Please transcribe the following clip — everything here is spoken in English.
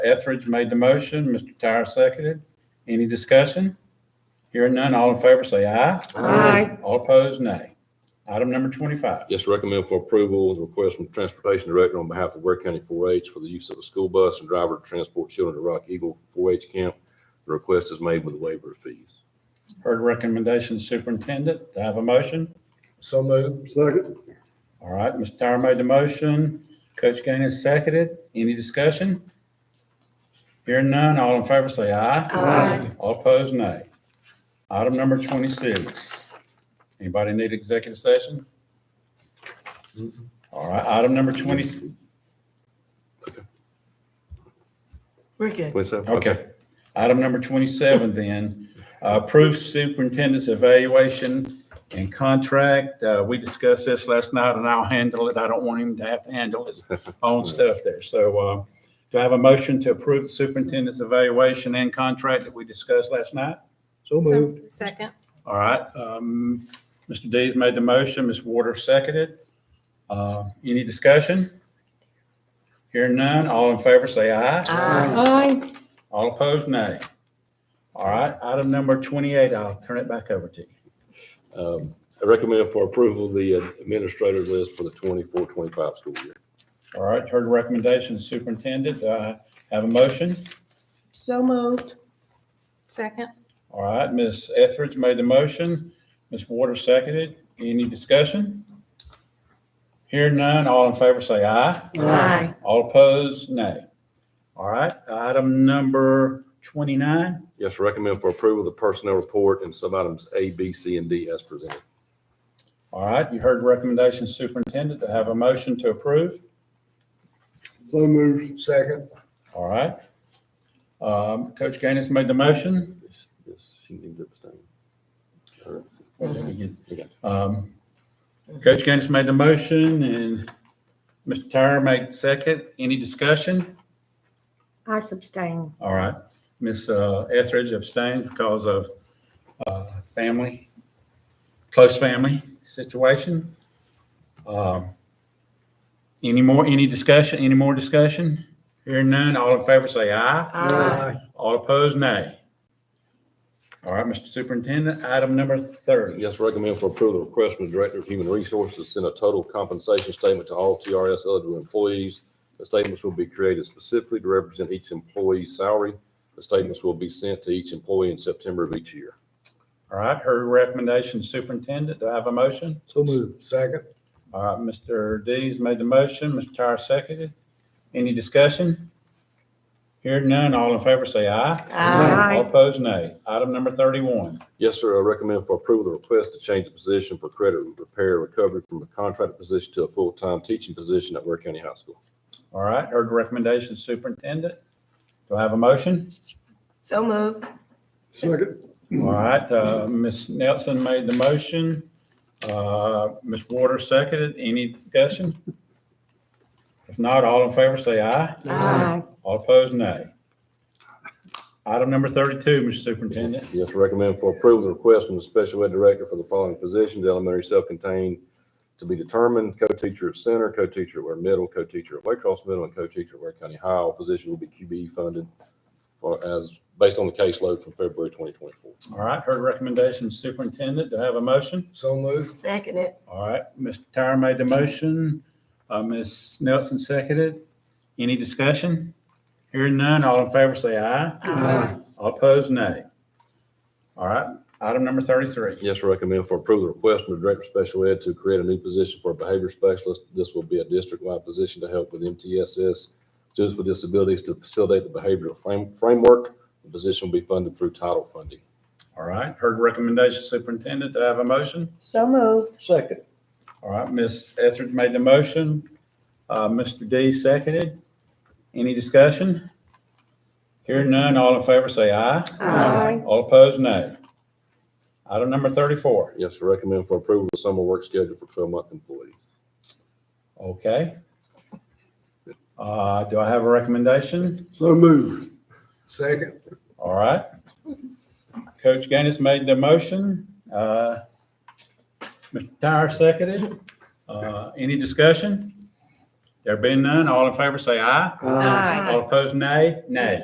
Etheridge made the motion, Mr. Tyra seconded. Any discussion? Hearing none, all in favor say aye. Aye. All opposed, nay. Item number 25. Yes, recommend for approval, the request from the Transportation Director on behalf of Ware County 4-H for the use of a school bus and driver to transport children to Rock Eagle 4-H camp. The request is made with a waiver of fees. Heard recommendation, superintendent. Do I have a motion? So moved. Second. All right, Mr. Tyra made the motion. Coach Gaines seconded. Any discussion? Hearing none, all in favor say aye. Aye. All opposed, nay. Item number 26. Anybody need executive session? All right, item number 20, We're good. Twenty-seven? Okay. Item number 27 then, uh, approve superintendent's evaluation and contract. Uh, We discussed this last night and I'll handle it. I don't want him to have to handle his own stuff there. So uh, do I have a motion to approve the superintendent's evaluation and contract that we discussed last night? So moved. Second. All right. um, Mr. Dees made the motion, Ms. Warder seconded. Uh, Any discussion? Hearing none, all in favor say aye. Aye. Aye. All opposed, nay. All right, item number 28, I'll turn it back over to you. Um, I recommend for approval, the administrator's list for the 24-25 school year. All right, heard recommendation, superintendent, do I have a motion? So moved. Second. All right, Ms. Etheridge made the motion, Ms. Waters seconded. Any discussion? Hearing none, all in favor say aye. Aye. All opposed, nay. All right, item number 29, Yes, recommend for approval, the personnel report and some items A, B, C, and D as presented. all right, you heard recommendation, superintendent, to have a motion to approve. So moved. Second. All right. Um, Coach Gaines made the motion. Yes, yes, She needs to abstain. All right. Okay. Um, Coach Gaines made the motion and Mr. Tyra made second. Any discussion? I abstain. All right. Ms. uh, Etheridge abstained because of uh, family, close family situation. Um, Any more, any discussion, any more discussion? Hearing none, all in favor say aye. Aye. All opposed, nay. All right, Mr. Superintendent, item number 30. Yes, recommend for approval, the request from the Director of Human Resources to send a total compensation statement to all TRS eligible employees. The statements will be created specifically to represent each employee's salary. The statements will be sent to each employee in September of each year. All right, her recommendation, superintendent, do I have a motion? So moved. Second. All right, Mr. Dees made the motion, Mr. Tyra seconded. Any discussion? Hearing none, all in favor say aye. Aye. All opposed, nay. Item number thirty-one. Yes, sir, I recommend for approval, the request to change the position for credit repair recovery from a contracted position to a full-time teaching position at Ware County High School. All right, heard the recommendation, superintendent. Do I have a motion? So moved. Second. All right, uh, Ms. Nelson made the motion. Uh, Ms. Waters seconded. Any discussion? If not, all in favor say aye. Aye. All opposed, nay. Item number thirty-two, Mr. Superintendent. Yes, recommend for approval, the request from the special ed director for the following positions, elementary self-contained to be determined, co-teacher at center, co-teacher at Ware Middle, co-teacher at Waycross Middle, and co-teacher at Ware County High. All positions will be QBE funded for as, based on the caseload from February twenty twenty-four. All right, heard recommendations, superintendent, to have a motion? So moved. Second it. All right, Mr. Tyra made the motion, uh, Ms. Nelson seconded. Any discussion? Hearing none, all in favor say aye. Aye. All opposed, nay. All right, item number thirty-three. Yes, recommend for approval, the request from the Director of Special Ed to create a new position for a behavior specialist. This will be a district-wide position to help with MTSS students with disabilities to facilitate the behavioral frame- framework. The position will be funded through title funding. All right, heard recommendation, superintendent, to have a motion? So moved. Second. All right, Ms. Etheridge made the motion, uh, Mr. D seconded. Any discussion? Hearing none, all in favor say aye. Aye. All opposed, nay. Item number thirty-four. Yes, recommend for approval, the summer work schedule for twelve-month employees. Okay. Uh, do I have a recommendation? So moved. Second. All right. Coach Gaines made the motion. Uh, Mr. Tyra seconded. Uh, any discussion? There being none, all in favor say aye. Aye. Ah. All opposed, nay. Nay.